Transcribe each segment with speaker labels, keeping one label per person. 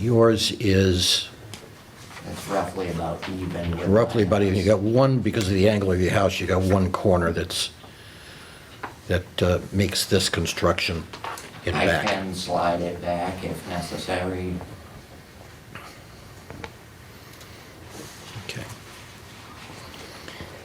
Speaker 1: Yours is
Speaker 2: It's roughly about even with.
Speaker 1: roughly about,
Speaker 2: mine.
Speaker 1: you got one, because of the angle of your house, you got one corner that's, that uh, makes this construction in
Speaker 2: I
Speaker 1: back.
Speaker 2: can slide it back if necessary.
Speaker 1: Okay.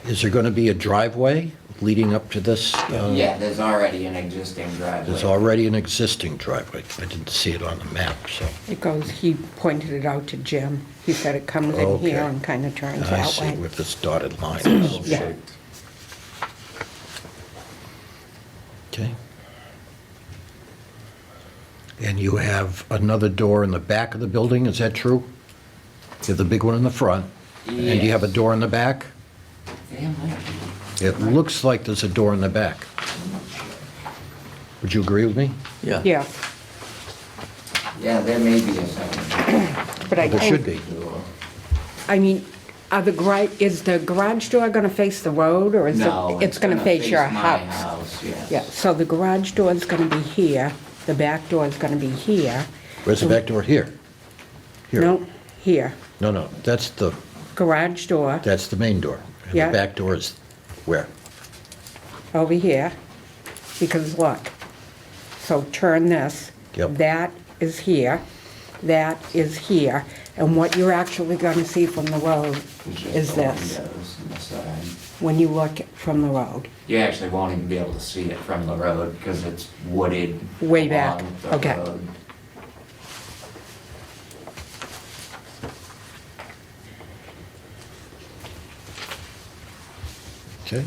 Speaker 1: Is there going to be a driveway leading up to this? uh,
Speaker 2: Yeah, there's already an existing driveway.
Speaker 1: There's already an existing driveway. I didn't see it on the map, so.
Speaker 3: It goes, he pointed it out to Jim. He said it comes in
Speaker 1: Okay.
Speaker 3: here and kind of turns
Speaker 1: I
Speaker 3: that
Speaker 1: see
Speaker 3: way.
Speaker 1: where this dotted line is.
Speaker 3: Yeah.
Speaker 1: Okay. And you have another door in the back of the building, is that true? You have the big one in the front? And you have a
Speaker 2: Yes.
Speaker 1: door in the back?
Speaker 2: Yeah, might be.
Speaker 1: It looks like there's a door in the back. Would you agree with me?
Speaker 3: Yeah,
Speaker 2: Yeah, there may be a second
Speaker 3: but I
Speaker 1: There should
Speaker 3: think,
Speaker 1: be.
Speaker 2: door.
Speaker 3: I mean, are the garage, is the garage door going to face the road or is it?
Speaker 2: No, it's
Speaker 3: going to
Speaker 2: gonna
Speaker 3: face your
Speaker 2: face my
Speaker 3: house?
Speaker 2: house, yes.
Speaker 3: Yeah, so the garage door is going to be here, the back door is going to be here.
Speaker 1: Where's the back door? Here? Here?
Speaker 3: No, here.
Speaker 1: No, no, that's the,
Speaker 3: Garage door
Speaker 1: that's the main door. And
Speaker 3: Yeah.
Speaker 1: the back door is where?
Speaker 3: over here, because look, so turn this.
Speaker 1: Yep.
Speaker 3: That is here, that is here, and what you're actually going to see from the road
Speaker 2: It's just
Speaker 3: is
Speaker 2: the
Speaker 3: this,
Speaker 2: windows and the side.
Speaker 3: when you look from the road.
Speaker 2: You actually won't even be able to see it from the road because it's wooded.
Speaker 3: Way back,
Speaker 2: along the
Speaker 3: okay.
Speaker 2: road.
Speaker 1: Okay.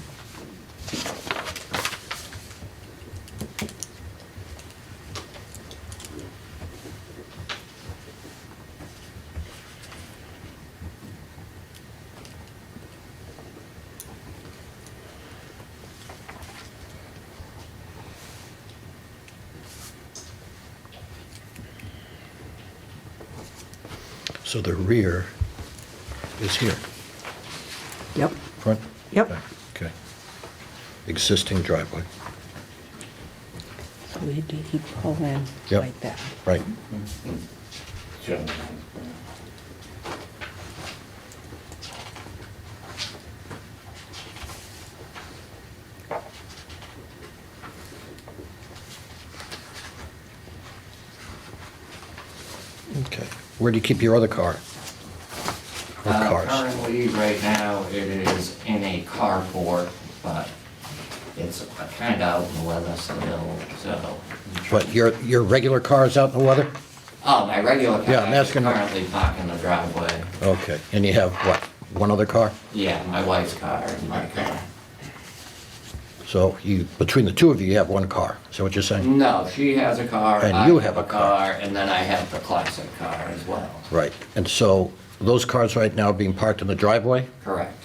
Speaker 1: So the rear is here,
Speaker 3: Yep.
Speaker 1: front?
Speaker 3: Yep.
Speaker 1: back, Okay. Existing driveway,
Speaker 3: So he did, he pulled in
Speaker 1: Yep.
Speaker 3: like that.
Speaker 1: right. Okay. Where do you keep your other car? Or
Speaker 2: Uh,
Speaker 1: cars?
Speaker 2: Currently, right now, it is in a carport, but it's kind of out in the weather still, so.
Speaker 1: But your, your regular car's out in the weather?
Speaker 2: Oh, my regular
Speaker 1: Yeah,
Speaker 2: car
Speaker 1: I'm
Speaker 2: is
Speaker 1: asking-
Speaker 2: currently parked in the driveway.
Speaker 1: Okay. And you have, what, one other car?
Speaker 2: Yeah, my wife's car and my car.
Speaker 1: So you, between the two of you, you have one car. Is that what you're saying?
Speaker 2: No, she has a car.
Speaker 1: And
Speaker 2: I
Speaker 1: you have a car.
Speaker 2: And then I have the classic car as well.
Speaker 1: Right. And so those cars right now are being parked in the driveway?
Speaker 2: Correct.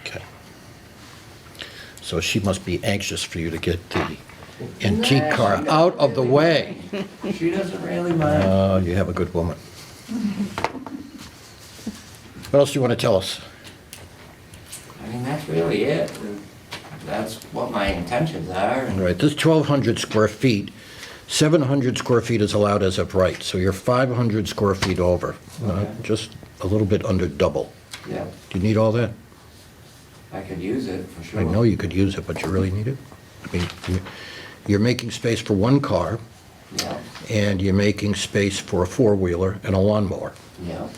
Speaker 1: Okay. So she must be anxious for you to get the antique car out of the way.
Speaker 2: She doesn't really mind.
Speaker 1: Oh, you have a good woman. What else do you want to tell us?
Speaker 2: I mean, that's really it. That's what my intentions are.
Speaker 1: All right, this 1,200 square feet, 700 square feet is allowed as of right, so you're 500 square feet over, uh,
Speaker 2: Okay.
Speaker 1: just a little bit under double.
Speaker 2: Yeah,
Speaker 1: Do you need all that?
Speaker 2: I could use it for sure.
Speaker 1: I know you could use it, but you really need it? I mean, you- you're making space for one car,
Speaker 2: Yeah,
Speaker 1: and you're making space for a four-wheeler and a lawnmower.
Speaker 2: yeah.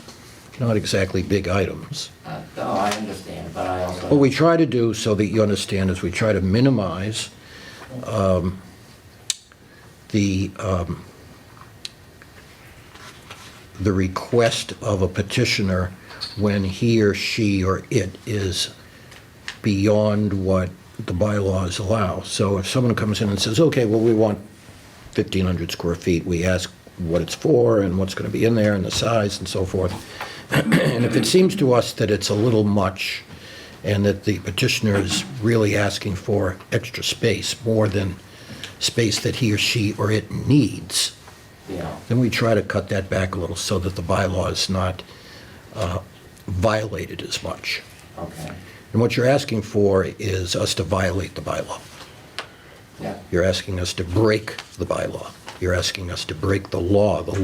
Speaker 1: Not exactly big items.
Speaker 2: Uh, No, I understand, but I also.
Speaker 1: What we try to do, so that you understand, is we try to minimize um, the, um, the request of a petitioner when he or she or it is beyond what the bylaws allow. So if someone comes in and says, okay, well, we want 1,500 square feet, we ask what it's for and what's going to be in there and the size and so forth. And if it seems to us that it's a little much and that the petitioner is really asking for extra space, more than space that he or she or it needs,
Speaker 2: Yeah,
Speaker 1: then we try to cut that back a little so that the bylaw is not uh, violated as much.
Speaker 2: okay,
Speaker 1: And what you're asking for is us to violate the bylaw.
Speaker 2: yeah.
Speaker 1: You're asking us to break the bylaw. You're asking us to break the law, the